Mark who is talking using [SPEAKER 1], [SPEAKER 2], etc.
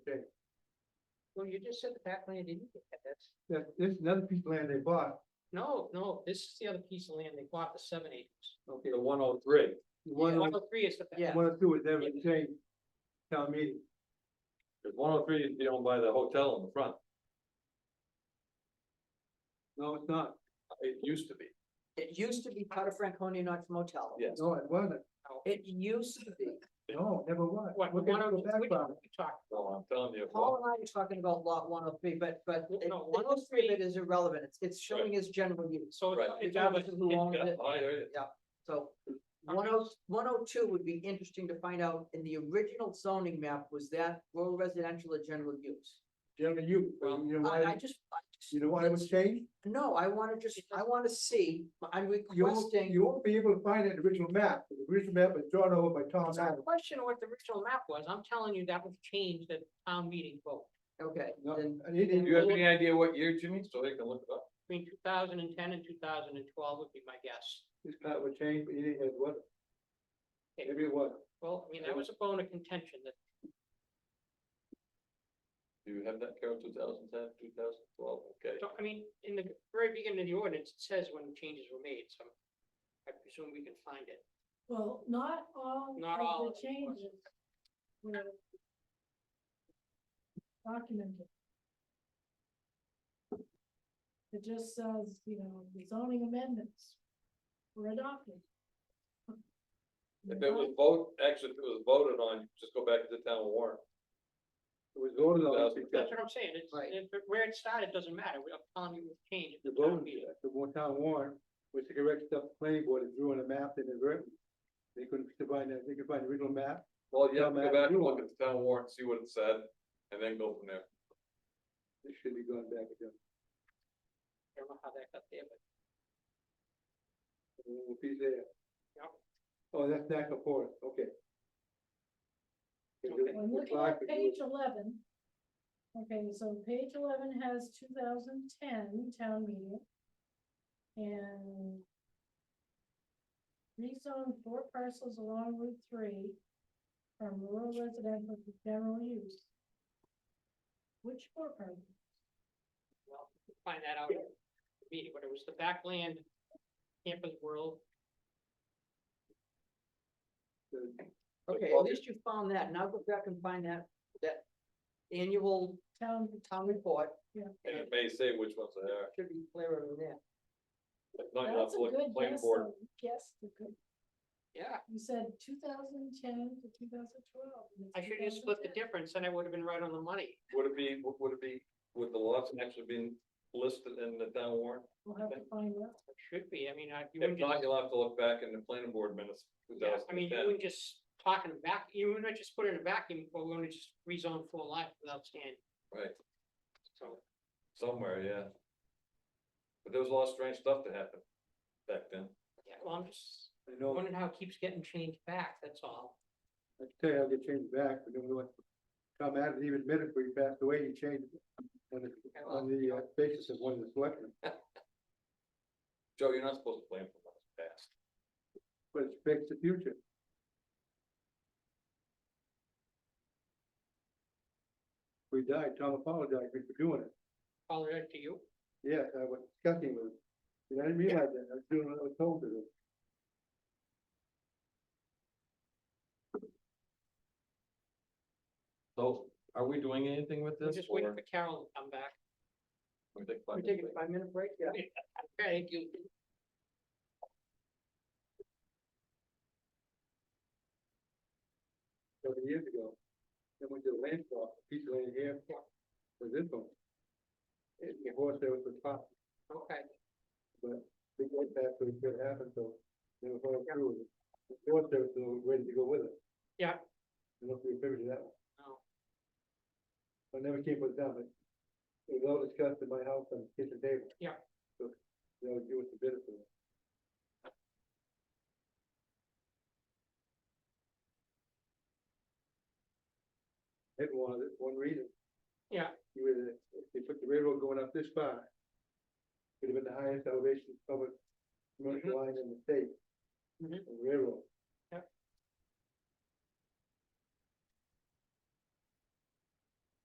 [SPEAKER 1] you just said the back land didn't get that, that's,
[SPEAKER 2] That, there's another piece of land they bought,
[SPEAKER 1] no, no, this is the other piece of land they bought, the seven acres.
[SPEAKER 2] okay,
[SPEAKER 3] The one oh three.
[SPEAKER 2] the one,
[SPEAKER 1] One
[SPEAKER 2] on-
[SPEAKER 1] oh three is the. back.
[SPEAKER 2] the one or two was never changed. Town meeting,
[SPEAKER 3] Cause one oh three is the owned by the hotel in the front.
[SPEAKER 2] no, it's not,
[SPEAKER 3] It used to be.
[SPEAKER 4] It used to be part of Franconia Knox Motel.
[SPEAKER 3] Yes.
[SPEAKER 2] no, it wasn't,
[SPEAKER 4] It used to be.
[SPEAKER 2] no, it never was.
[SPEAKER 1] What,
[SPEAKER 2] Look
[SPEAKER 1] the
[SPEAKER 2] at
[SPEAKER 1] one
[SPEAKER 2] the
[SPEAKER 1] oh,
[SPEAKER 2] back
[SPEAKER 1] we
[SPEAKER 2] part.
[SPEAKER 1] talked,
[SPEAKER 3] Well, I'm telling you.
[SPEAKER 4] Paul and I are talking about lot one oh three, but, but
[SPEAKER 1] No,
[SPEAKER 4] it-
[SPEAKER 1] no,
[SPEAKER 4] the history
[SPEAKER 1] 103
[SPEAKER 4] of it is irrelevant. It's, it's showing as general use.
[SPEAKER 1] so it's,
[SPEAKER 3] Right.
[SPEAKER 1] it's out of,
[SPEAKER 4] Regardless of who owns
[SPEAKER 3] Yeah,
[SPEAKER 4] it,
[SPEAKER 3] I heard it.
[SPEAKER 4] so one oh, one oh two would be interesting to find out. In the original zoning map, was that rural residential or general use?
[SPEAKER 2] Generally, you, you know
[SPEAKER 4] I, I
[SPEAKER 2] why,
[SPEAKER 4] just,
[SPEAKER 2] you know why it was changed?
[SPEAKER 4] no, I wanna just, I wanna see, I'm
[SPEAKER 2] You won't,
[SPEAKER 4] requesting.
[SPEAKER 2] you won't be able to find it in the original map, the original map was drawn over by Tom
[SPEAKER 1] it's not a
[SPEAKER 2] Adams.
[SPEAKER 1] question of what the original map was, I'm telling you, that was changed at town meeting vote,
[SPEAKER 4] Okay,
[SPEAKER 2] No,
[SPEAKER 4] then
[SPEAKER 2] and he
[SPEAKER 3] Do you have
[SPEAKER 2] didn't-
[SPEAKER 3] any idea what year, Jimmy, so they can look it up?
[SPEAKER 1] between two thousand and ten and two thousand and twelve would be my guess.
[SPEAKER 2] This part was changed, but he didn't have what, maybe it was,
[SPEAKER 1] Well, I mean, that was a bone of contention that
[SPEAKER 3] Do you have that, Carol, two thousand ten, two thousand twelve, okay?
[SPEAKER 1] So, I mean, in the very beginning of the ordinance, it says when changes were made, so I presume we can find it.
[SPEAKER 5] Well, not all.
[SPEAKER 1] Not
[SPEAKER 5] of
[SPEAKER 1] all,
[SPEAKER 5] The
[SPEAKER 1] of course.
[SPEAKER 5] changes. were Documented. It just says, you know, the zoning amendments were adopted.
[SPEAKER 3] If it was vote, actually, if it was voted on, just go back to the town warrant.
[SPEAKER 2] it was voted on.
[SPEAKER 3] 2010.
[SPEAKER 1] That's what I'm saying, it's,
[SPEAKER 4] Right.
[SPEAKER 1] it- where it started doesn't matter, I'm telling you, we've changed.
[SPEAKER 2] The voting, the one town warrant, was the correct stuff, the planning board had drew on a map that they wrote. They couldn't find that, they could find the original map,
[SPEAKER 3] Well, you have to
[SPEAKER 2] Yeah,
[SPEAKER 3] go
[SPEAKER 2] man,
[SPEAKER 3] back and
[SPEAKER 2] you
[SPEAKER 3] look at the town warrant, see what it said, and then go from there.
[SPEAKER 2] it should be gone back again.
[SPEAKER 1] I don't know how that got there, but
[SPEAKER 2] It will be there.
[SPEAKER 1] Yeah.
[SPEAKER 2] Oh, that's back and forth, okay.
[SPEAKER 1] Okay.
[SPEAKER 5] I'm looking at page eleven. Okay, so page eleven has two thousand ten town meeting. And. Rezone four parcels along Route three from rural residential to general use. Which four parcels?
[SPEAKER 1] well, we'll find that out. at the Meeting, but it was the backland campus world,
[SPEAKER 4] Okay, at least you found that. Now go back and find that, that annual
[SPEAKER 5] Town,
[SPEAKER 4] town report.
[SPEAKER 3] And it may say which ones they are,
[SPEAKER 4] Should be clearer than that.
[SPEAKER 3] if not, you'll have to
[SPEAKER 5] that's a
[SPEAKER 3] look at
[SPEAKER 5] good
[SPEAKER 3] the planning
[SPEAKER 5] guess,
[SPEAKER 3] board.
[SPEAKER 5] though. Yes, a good-
[SPEAKER 1] yeah,
[SPEAKER 5] you said two thousand ten to two thousand twelve.
[SPEAKER 1] I should have split the difference, and I would have been right on the money.
[SPEAKER 3] Would it be, would- would it be, would the lots actually been listed in the town warrant?
[SPEAKER 5] We'll have to find out.
[SPEAKER 1] It Should be, I mean, I, you
[SPEAKER 3] If
[SPEAKER 1] wouldn't
[SPEAKER 3] not,
[SPEAKER 1] just,
[SPEAKER 3] you'll have to look back in the planning board minutes, two
[SPEAKER 1] yeah, I
[SPEAKER 3] thousand
[SPEAKER 1] mean,
[SPEAKER 3] and
[SPEAKER 1] you
[SPEAKER 3] ten.
[SPEAKER 1] wouldn't just talk in a vac, you wouldn't just put it in a vacuum, or we wouldn't just rezone full life without standing,
[SPEAKER 3] Right,
[SPEAKER 1] so.
[SPEAKER 3] somewhere, yeah. But there was a lot of strange stuff that happened back then.
[SPEAKER 1] Yeah, well, I'm just
[SPEAKER 2] uh, I know,
[SPEAKER 1] wondering how it keeps getting changed back, that's all.
[SPEAKER 2] I can tell you how they changed back, but then we went, Tom Adams even admitted when he passed away, he changed it. On the, on the uh, basis of one of the selectmen,
[SPEAKER 3] Joe, you're not supposed to plan for what's past.
[SPEAKER 2] but it's fixed the future. We died, Tom apologized for doing it,
[SPEAKER 1] All right to you.
[SPEAKER 2] yes, I was discussing with him, and I didn't realize that, I was doing what I was told to do.
[SPEAKER 3] So are we doing anything with
[SPEAKER 1] We're
[SPEAKER 3] this?
[SPEAKER 1] just waiting
[SPEAKER 3] or-
[SPEAKER 1] for Carol to come back.
[SPEAKER 3] we take
[SPEAKER 4] We're
[SPEAKER 3] five
[SPEAKER 4] taking
[SPEAKER 3] minutes?
[SPEAKER 4] a five minute break, yeah.
[SPEAKER 1] Okay, you.
[SPEAKER 2] several years ago. Then went to the land swap, piece of land here.
[SPEAKER 1] Yeah.
[SPEAKER 2] For this one. It, the horse there was the top,
[SPEAKER 1] Okay,
[SPEAKER 2] but we went back to it could happen, so they were going through with it. The horse there was still ready to go with it.
[SPEAKER 1] Yeah.
[SPEAKER 2] I don't know if you remember that one.
[SPEAKER 1] No.
[SPEAKER 2] I never came with them, but it was all discussed in my house on the kitchen table.
[SPEAKER 1] Yeah.
[SPEAKER 2] So, you know, you was the bidder for it. It wanted it, one reason.
[SPEAKER 1] Yeah.
[SPEAKER 2] You would, if they put the railroad going up this far.
[SPEAKER 1] Mm-hmm.
[SPEAKER 2] Could have been the highest elevation public commercial line in the state.
[SPEAKER 1] Mhm.
[SPEAKER 2] the Railroad.